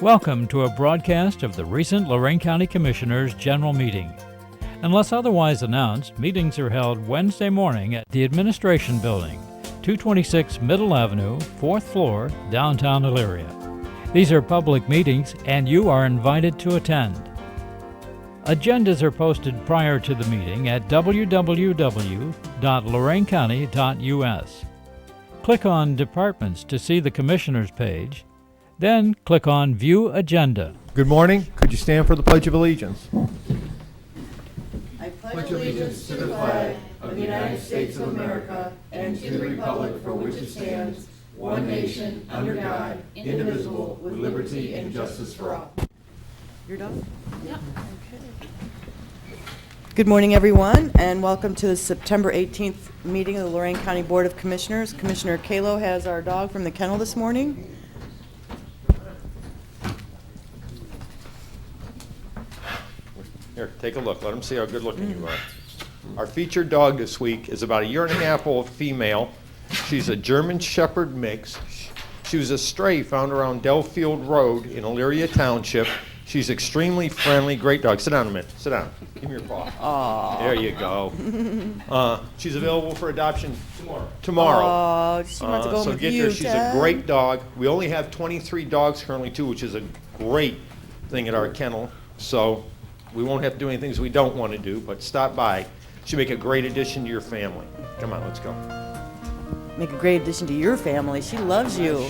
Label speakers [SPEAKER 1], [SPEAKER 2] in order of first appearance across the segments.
[SPEAKER 1] Welcome to a broadcast of the recent Lorraine County Commissioners' General Meeting. Unless otherwise announced, meetings are held Wednesday morning at the Administration Building, 226 Middle Avenue, 4th floor, downtown Elyria. These are public meetings and you are invited to attend. Agendas are posted prior to the meeting at www.loraincounty.us. Click on Departments to see the Commissioners page, then click on View Agenda.
[SPEAKER 2] Good morning. Could you stand for the Pledge of Allegiance?
[SPEAKER 3] Good morning, everyone, and welcome to the September 18th meeting of the Lorraine County Board of Commissioners. Commissioner Kalo has our dog from the kennel this morning.
[SPEAKER 4] Here, take a look. Let them see how good-looking you are. Our featured dog this week is about a year and a half old female. She's a German Shepherd mix. She was a stray found around Delfield Road in Elyria Township. She's extremely friendly, great dog. Sit down a minute. Sit down. Give me your paw. There you go. Uh, she's available for adoption tomorrow. Tomorrow.
[SPEAKER 3] Oh, she wants to
[SPEAKER 4] Uh,
[SPEAKER 3] go home
[SPEAKER 4] so
[SPEAKER 3] with
[SPEAKER 4] get
[SPEAKER 3] you,
[SPEAKER 4] her. She's a
[SPEAKER 3] Ted.
[SPEAKER 4] great dog. We only have 23 dogs currently too, which is a great thing at our kennel. So we won't have to do any things we don't want to do, but stop by. She'll make a great addition to your family. Come on, let's go.
[SPEAKER 3] Make a great addition to your family. She loves you.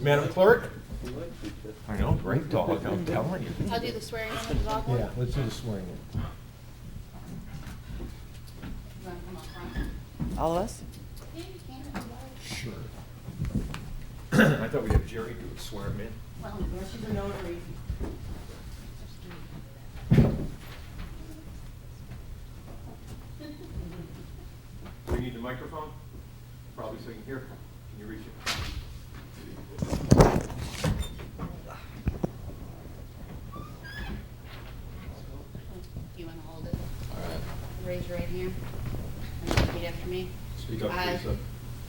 [SPEAKER 4] Madam Clerk? I know, great dog, I'm telling you.
[SPEAKER 5] I'll do the swearing in with the dog.
[SPEAKER 2] Yeah, let's do the swearing in.
[SPEAKER 3] All of us?
[SPEAKER 4] Sure. I thought we'd have Jerry do it, swear him in.
[SPEAKER 3] Well, she's a notary.
[SPEAKER 4] Do you need the microphone? Probably so you can hear. Can you reach it?
[SPEAKER 5] You wanna hold it? Raise your right hand. And repeat after me.
[SPEAKER 4] Speak up,
[SPEAKER 5] I-
[SPEAKER 4] please, sir.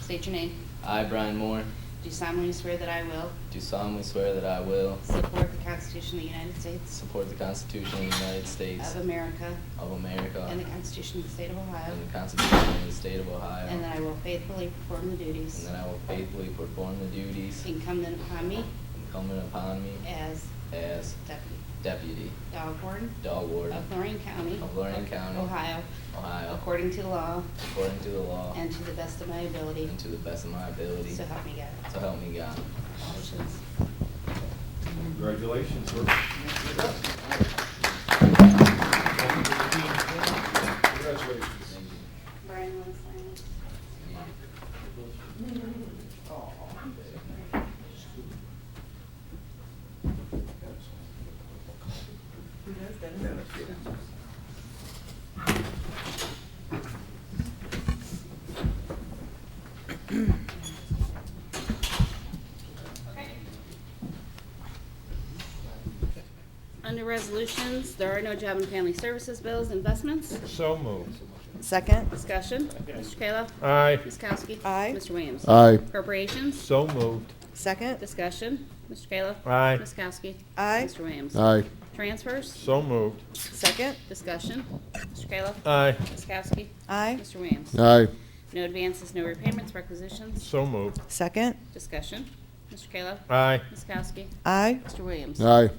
[SPEAKER 5] State your name.
[SPEAKER 6] I, Brian Moore,
[SPEAKER 5] Do solemnly swear that I will
[SPEAKER 6] do solemnly swear that I will
[SPEAKER 5] support the Constitution of the United States
[SPEAKER 6] support the Constitution of the United States
[SPEAKER 5] of America
[SPEAKER 6] of America
[SPEAKER 5] and the Constitution of the State of Ohio,
[SPEAKER 6] and the Constitution of the State of Ohio,
[SPEAKER 5] and that I will faithfully perform the
[SPEAKER 6] and
[SPEAKER 5] duties
[SPEAKER 6] that I will faithfully perform the duties
[SPEAKER 5] incumbent upon me
[SPEAKER 6] incumbent upon me
[SPEAKER 5] as
[SPEAKER 6] as
[SPEAKER 5] deputy
[SPEAKER 6] deputy
[SPEAKER 5] dog warden
[SPEAKER 6] dog warden
[SPEAKER 5] of Lorraine County,
[SPEAKER 6] of Lorraine County,
[SPEAKER 5] Ohio,
[SPEAKER 6] Ohio,
[SPEAKER 5] according to law
[SPEAKER 6] according to the law
[SPEAKER 5] and to the best of my ability.
[SPEAKER 6] and to the best of my ability,
[SPEAKER 5] So help me God.
[SPEAKER 6] so help me God.
[SPEAKER 5] Congratulations.
[SPEAKER 4] Congratulations, sir.
[SPEAKER 5] Brian, want to sign it? Under resolutions, there are no job and family services bills, investments,
[SPEAKER 4] So moved.
[SPEAKER 3] Second?
[SPEAKER 5] discussion. Mr. Kayla.
[SPEAKER 4] Aye.
[SPEAKER 5] Ms. Kowski.
[SPEAKER 3] Aye.
[SPEAKER 5] Mr. Williams.
[SPEAKER 7] Aye,
[SPEAKER 5] Appropriations,
[SPEAKER 4] So moved.
[SPEAKER 3] Second?
[SPEAKER 5] discussion. Mr. Kayla.
[SPEAKER 4] Aye.
[SPEAKER 5] Ms. Kowski.
[SPEAKER 3] Aye.
[SPEAKER 5] Mr. Williams.
[SPEAKER 7] aye,
[SPEAKER 5] Transfers,
[SPEAKER 4] So moved.
[SPEAKER 3] Second?
[SPEAKER 5] discussion. Mr. Kayla.
[SPEAKER 4] Aye.
[SPEAKER 5] Ms. Kowski.
[SPEAKER 3] Aye.
[SPEAKER 5] Mr. Williams.
[SPEAKER 7] aye,
[SPEAKER 5] No advances, no repayments, requisitions,
[SPEAKER 4] So moved.
[SPEAKER 3] Second?
[SPEAKER 5] discussion. Mr. Kayla.
[SPEAKER 4] Aye.
[SPEAKER 5] Ms. Kowski.
[SPEAKER 3] Aye.
[SPEAKER 5] Mr. Williams.
[SPEAKER 7] aye,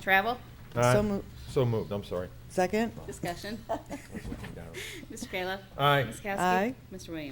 [SPEAKER 5] Travel,
[SPEAKER 4] Aye.
[SPEAKER 3] So moved.
[SPEAKER 4] So moved, I'm sorry.
[SPEAKER 3] Second?
[SPEAKER 5] discussion. Mr. Kayla.
[SPEAKER 4] Aye.
[SPEAKER 5] Ms. Kowski.
[SPEAKER 3] Aye.
[SPEAKER 5] Mr. Williams.